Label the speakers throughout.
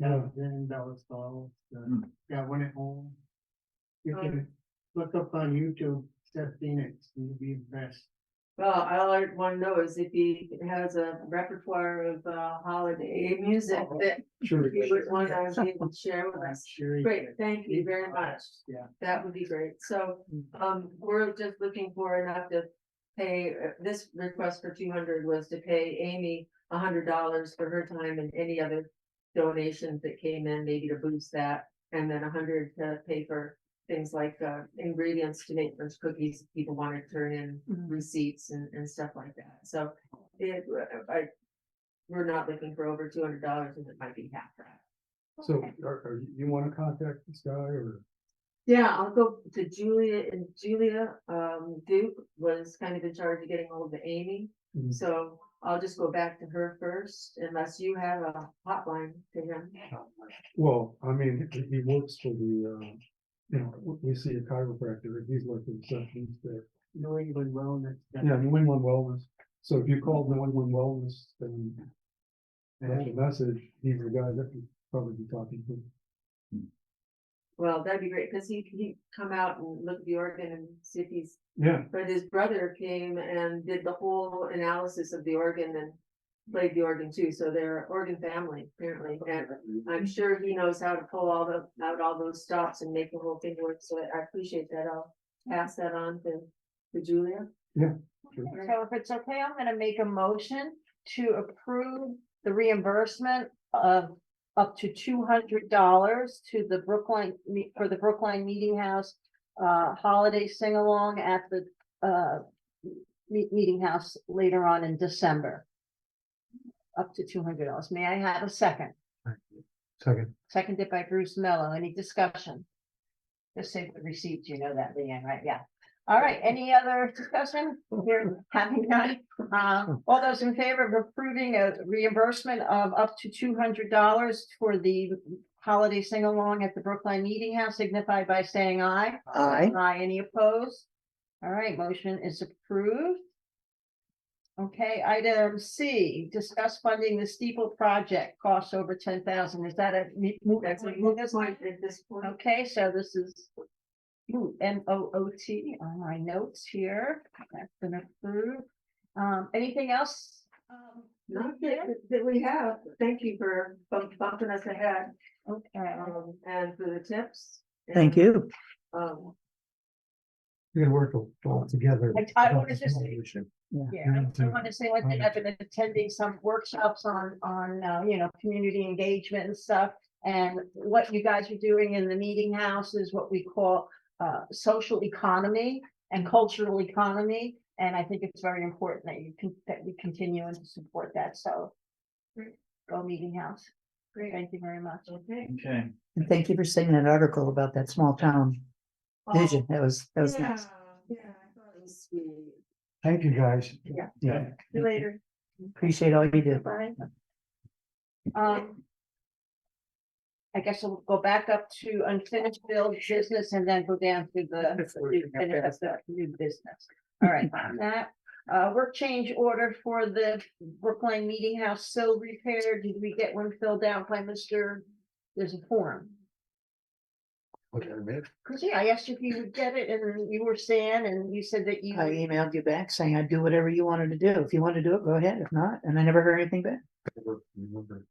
Speaker 1: Yeah, then that was all,
Speaker 2: Hmm.
Speaker 1: yeah, when it home. You
Speaker 3: Oh.
Speaker 1: can look up on YouTube, Seth Phoenix, he'll be the best.
Speaker 3: Well, all I wanna know is if he has a repertoire of uh holiday music that
Speaker 1: Sure.
Speaker 3: he would wanna be able to share with
Speaker 1: I'm
Speaker 3: us.
Speaker 1: sure he
Speaker 3: Great,
Speaker 1: could.
Speaker 3: thank you very much.
Speaker 1: Yeah.
Speaker 3: That would be great. So, um, we're just looking for enough to pay, uh, this request for two hundred was to pay Amy a hundred dollars for her time and any other donations that came in, maybe to boost that, and then a hundred to pay for things like, uh, ingredients to make those cookies, if people want to turn in receipts and, and stuff like that. So it, uh, I, we're not looking for over two hundred dollars, and it might be half that.
Speaker 4: So are, are, you- you wanna contact this guy or?
Speaker 3: Yeah, I'll go to Julia and Julia, um, Duke was kind of in charge of getting hold of Amy.
Speaker 4: Mhm.
Speaker 3: So I'll just go back to her first unless you have a hotline to him.
Speaker 4: Well, I mean, he, he works for the, uh, you know, we, we see a chiropractor, he's like the receptionist there.
Speaker 1: New England wellness.
Speaker 4: Yeah, New England Wellness. So if you called New England Wellness and and have a message, he's the guy that you'd probably be talking to.
Speaker 3: Well, that'd be great because he, he come out and look at the organ and see if he's,
Speaker 4: Yeah,
Speaker 3: but his brother came and did the whole analysis of the organ and played the organ too. So they're organ family apparently. And I'm sure he knows how to pull all the, out all those stops and make the whole thing work, so I appreciate that, I'll pass that on to, to Julia.
Speaker 5: So if it's okay, I'm gonna make a motion to approve the reimbursement of up to two hundred dollars to the Brookline, me- for the Brookline Meeting House uh, holiday sing-along at the uh, me- meeting house later on in December. Up to two hundred dollars. May I have a second?
Speaker 4: second.
Speaker 5: Seconded by Bruce Mello. Any discussion? Just say the receipts, you know that, Leanne, right? Yeah. All right, any other discussion? Here, having none. Um, all those in favor of approving a reimbursement of up to two hundred dollars for the holiday sing-along at the Brookline Meeting House signify by saying aye.
Speaker 6: Aye.
Speaker 5: Aye, any opposed? All right, motion is approved. Okay, item C, discuss funding the steeple project, costs over ten thousand. Is that a?
Speaker 3: That's what you guys want at this point.
Speaker 6: Oh.
Speaker 5: Okay, so this is. Ooh, M O O T on my notes here, that's been approved. Um, anything else? Um,
Speaker 3: Not that, that we have, thank you for bump- bumping us ahead,
Speaker 5: Okay,
Speaker 3: um, and for the tips.
Speaker 6: Thank you.
Speaker 3: Um,
Speaker 4: You can work all- all together.
Speaker 5: I- I wanna just say- yeah, I
Speaker 4: Yeah,
Speaker 5: also want to say one
Speaker 4: okay.
Speaker 5: thing, I've been attending some workshops on, on, uh, you know, community engagement and stuff. And what you guys are doing in the meeting house is what we call, uh, social economy and cultural economy. And I think it's very important that you can, that we continue and support that, so.
Speaker 3: Great.
Speaker 5: Go meeting house,
Speaker 3: great,
Speaker 5: thank you very much.
Speaker 3: okay.
Speaker 2: Okay,
Speaker 6: And thank you for sending that article about that small town
Speaker 5: Oh,
Speaker 6: vision. That was, that was nice.
Speaker 3: Yeah, yeah, I thought it was sweet.
Speaker 4: Thank you, guys.
Speaker 3: Yeah.
Speaker 4: Yeah.
Speaker 3: See you later,
Speaker 6: Appreciate all you do.
Speaker 3: bye.
Speaker 5: Um. I guess we'll go back up to unfinished bill business and then go down to the the finish up the new business. All right, on that, uh, work change order for the Brookline Meeting House sill repair. Did we get one filled out by Mr.? There's a form.
Speaker 4: Okay, man.
Speaker 5: Cause yeah, I asked you if you would get it and you were saying, and you said that you.
Speaker 6: I emailed you back saying I'd do whatever you wanted to do. If you want to do it, go ahead. If not, and I never heard anything back.
Speaker 4: Remember,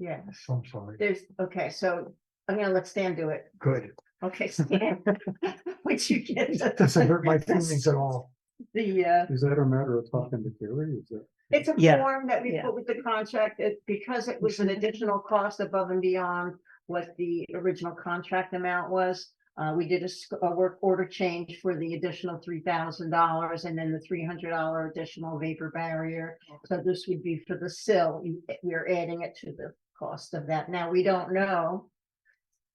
Speaker 5: Yeah,
Speaker 4: I'm sorry.
Speaker 5: there's, okay, so I'm gonna let Stan do it.
Speaker 4: Good.
Speaker 5: Okay, Stan. Would you get
Speaker 4: That
Speaker 5: the,
Speaker 4: doesn't hurt my feelings at all.
Speaker 5: the, uh?
Speaker 4: Is that a matter of talking to Gary? Is that?
Speaker 5: It's a
Speaker 6: Yeah.
Speaker 5: form that we
Speaker 6: Yeah. Mm-hmm.
Speaker 5: put with the contract, it, because it was an additional cost above and beyond what the original contract amount was. Uh, we did a, sc- a work order change for the additional three thousand dollars and then the three hundred dollar additional vapor barrier. So this would be for the sill, You- we're adding it to the cost of that. Now, we don't know.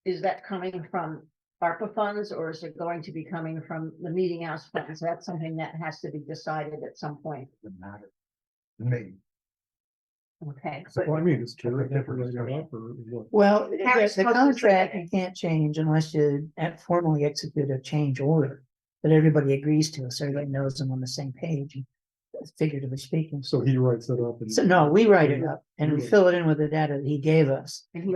Speaker 5: Is that coming from ARPA funds or is it going to be coming from the meeting house funds? That's something that has to be decided at some point,
Speaker 4: Doesn't matter. Me.
Speaker 5: okay?
Speaker 4: Well, I mean, is Gary
Speaker 2: That's a different
Speaker 4: going to
Speaker 2: discussion.
Speaker 4: up or what?
Speaker 6: Well, the
Speaker 5: Harry's
Speaker 6: the
Speaker 5: supposed to
Speaker 6: contract
Speaker 5: say.
Speaker 6: you can't change unless you at- formally execute a change order. That everybody agrees to, so everybody knows I'm on the same page, figuratively speaking.
Speaker 4: So he writes that up and.
Speaker 6: So no, we write it up and we
Speaker 4: Yeah.
Speaker 6: fill it in with the data that he gave us.
Speaker 5: And he